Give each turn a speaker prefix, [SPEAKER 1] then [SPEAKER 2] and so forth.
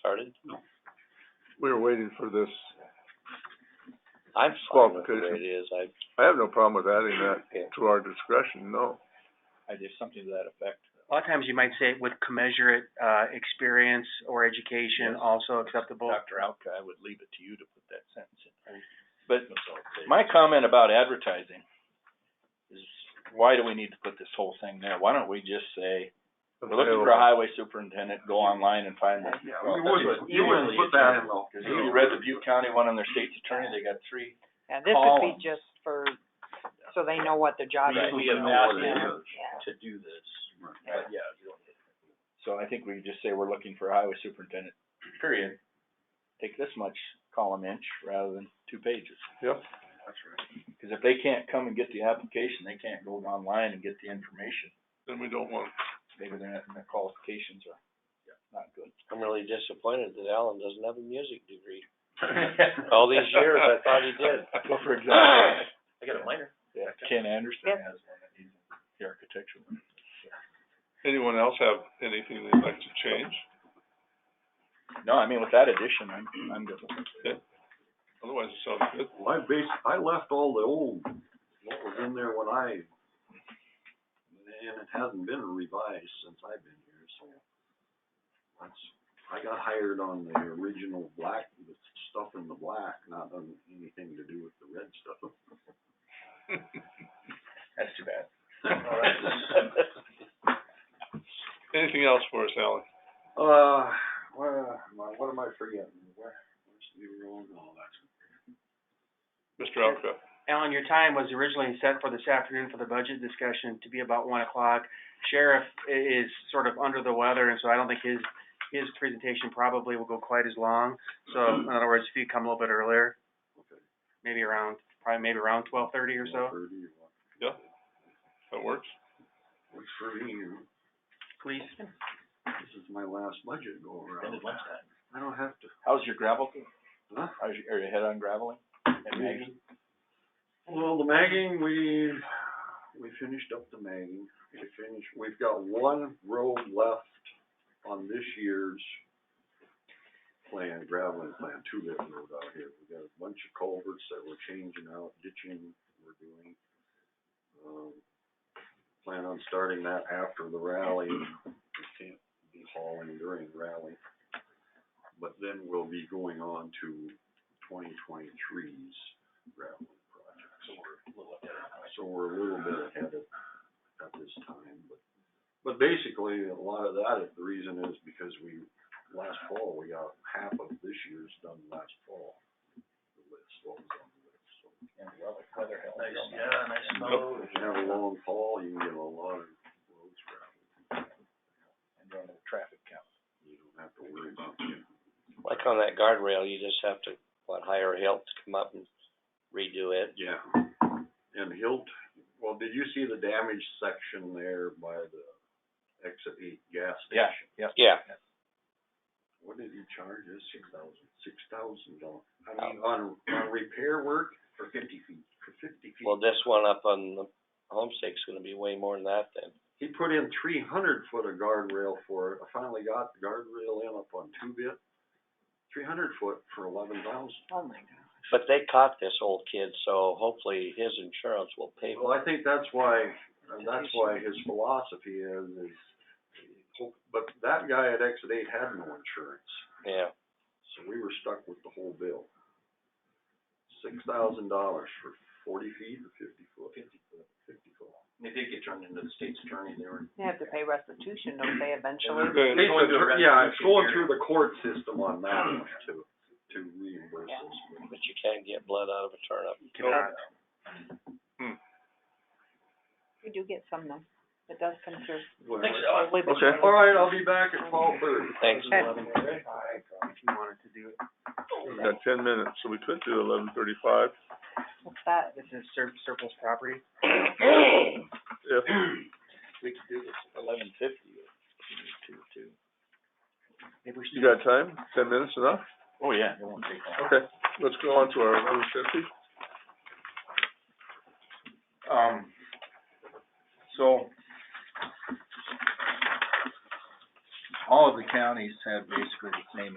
[SPEAKER 1] started?
[SPEAKER 2] We were waiting for this.
[SPEAKER 1] I'm fine with the way
[SPEAKER 2] Qualification.
[SPEAKER 1] it is, I,
[SPEAKER 2] I have no problem with adding
[SPEAKER 1] Okay.
[SPEAKER 2] that to our discretion, no.
[SPEAKER 1] I did something to that effect.
[SPEAKER 3] A lot of times you might say with commensurate, uh, experience or education
[SPEAKER 1] Yes.
[SPEAKER 3] also acceptable.
[SPEAKER 1] Dr. Alka, I would leave it to you to put that sentence in. But my comment about advertising is, why do we need to put this whole thing there? Why don't we just say, we're looking for a highway superintendent, go online and find one.
[SPEAKER 4] Yeah,
[SPEAKER 1] Well,
[SPEAKER 4] we
[SPEAKER 1] that's
[SPEAKER 4] wouldn't,
[SPEAKER 1] what-
[SPEAKER 4] you wouldn't put that in though.
[SPEAKER 1] Cause if you read the Butte County one on their state's attorney, they got three.
[SPEAKER 5] Yeah, this would be
[SPEAKER 1] Columns.
[SPEAKER 5] just for, so they know what their job
[SPEAKER 1] Right.
[SPEAKER 5] is.
[SPEAKER 1] We have
[SPEAKER 4] Know what it
[SPEAKER 5] Yeah.
[SPEAKER 4] is.
[SPEAKER 5] Yeah.
[SPEAKER 1] to do this. Right, yeah. So I think we just say we're looking for a highway superintendent, period. Take this much column inch rather than two pages.
[SPEAKER 2] Yep.
[SPEAKER 1] Cause if they can't come and get the application, they can't go online and get the information.
[SPEAKER 2] Then we don't want,
[SPEAKER 1] Maybe their, their qualifications are not good.
[SPEAKER 6] I'm really disappointed that Alan doesn't have a music degree. All these years, I thought he did.
[SPEAKER 1] Well, for example,
[SPEAKER 4] I got a minor.
[SPEAKER 1] yeah, Ken Anderson
[SPEAKER 5] Yep.
[SPEAKER 1] has one, and he's the architecture.
[SPEAKER 2] anyone else have anything they'd like to change?
[SPEAKER 1] No, I mean, with that addition, I'm, I'm good with it.
[SPEAKER 2] Otherwise, it sounds good.
[SPEAKER 4] Well, I bas I left all the old, what was in there when I, and it hasn't been revised since I've been here, so. That's, I got hired on the original black, the stuff in the black, not on anything to do with the red stuff.
[SPEAKER 1] That's too bad.
[SPEAKER 2] Anything else for us, Alan?
[SPEAKER 4] Uh, well, my- what am I forgetting? Where, where's the oh, road and all that?
[SPEAKER 2] Mr. Alka?
[SPEAKER 3] Alan, your time was originally set for this afternoon for the budget discussion to be about one o'clock. Sheriff i- is sort of under the weather, and so I don't think his, his presentation probably will go quite as long. So in other words, if you come a little bit earlier, maybe around, probably maybe around twelve thirty or so,
[SPEAKER 4] Thirty or what?
[SPEAKER 2] Yeah? That works?
[SPEAKER 4] Works for me, you know.
[SPEAKER 3] please.
[SPEAKER 4] This is my last budget go around.
[SPEAKER 1] Ended lunchtime.
[SPEAKER 4] I don't have to,
[SPEAKER 1] How's your gravel?
[SPEAKER 4] huh?
[SPEAKER 1] How's your, are you head on graveling? And Maggie?
[SPEAKER 4] Well, the magging, we, we finished up the magging, we finished, we've got one road left on this year's plan, graveling plan, two different roads out here, we got a bunch of culverts that we're changing out, ditching we're doing. Um, plan on starting that after the rally, we can't be hauling during rally. But then we'll be going on to twenty twenty-three's gravel project. So we're a little ahead. So we're a little bit ahead of, at this time, but, but basically, a lot of that, the reason is because we, last fall, we got half of this year's done last fall. The list, what was on the list, so.
[SPEAKER 1] And the weather, weather helps.
[SPEAKER 4] yeah, nice snow. If you have a long fall, you can get a lot of roads around,
[SPEAKER 1] And run the traffic count.
[SPEAKER 4] you don't have to worry about it.
[SPEAKER 6] Like on that guardrail, you just have to, what, hire help to come up and redo it.
[SPEAKER 4] Yeah, and Hilt, well, did you see the damage section there by the exit eight gas
[SPEAKER 1] Yeah,
[SPEAKER 4] station?
[SPEAKER 1] yeah.
[SPEAKER 6] Yeah,
[SPEAKER 4] what did he charge us? Six thousand. Six thousand dollars. I mean, on, on repair work for fifty feet, for fifty feet.
[SPEAKER 6] well, this one up on the homestead's gonna be way more than that then.
[SPEAKER 4] He put in three hundred foot of guardrail for it. I finally got the guardrail in up on two bit. Three hundred foot for eleven thousand.
[SPEAKER 5] Oh, my God.
[SPEAKER 6] But they caught this old kid, so hopefully his insurance will pay for
[SPEAKER 4] Well, I think that's why, and that's why his philosophy is, is, but that guy at exit eight had no insurance.
[SPEAKER 6] it. Yeah,
[SPEAKER 4] So we were stuck with the whole bill. Six thousand dollars for forty feet or fifty foot? Fifty foot. Fifty foot. They did get turned into the state's attorney, they were.
[SPEAKER 5] They have to pay restitution, don't they, eventually?
[SPEAKER 2] Okay,
[SPEAKER 4] Yeah, it's going through the court system on that one to, to reimburse us.
[SPEAKER 6] but you can't get blood out of a turnip.
[SPEAKER 3] Cannot.
[SPEAKER 5] We do get some though. It does come through.
[SPEAKER 4] Well,
[SPEAKER 2] Okay.
[SPEAKER 4] All right, I'll be back at twelve thirty.
[SPEAKER 6] Thanks.
[SPEAKER 4] Okay.
[SPEAKER 3] If you wanted to do it.
[SPEAKER 2] We've got ten minutes, so we could do eleven thirty-five
[SPEAKER 5] What's that?
[SPEAKER 3] This is sur- surplus property.
[SPEAKER 2] if,
[SPEAKER 1] We could do this at eleven fifty or two, two.
[SPEAKER 3] Maybe we
[SPEAKER 2] you
[SPEAKER 3] should do
[SPEAKER 2] got time? Ten minutes enough?
[SPEAKER 1] Oh, yeah, it won't take long.
[SPEAKER 2] Okay, let's go on to our eleven fifty.
[SPEAKER 1] Um, so, all of the counties have basically the same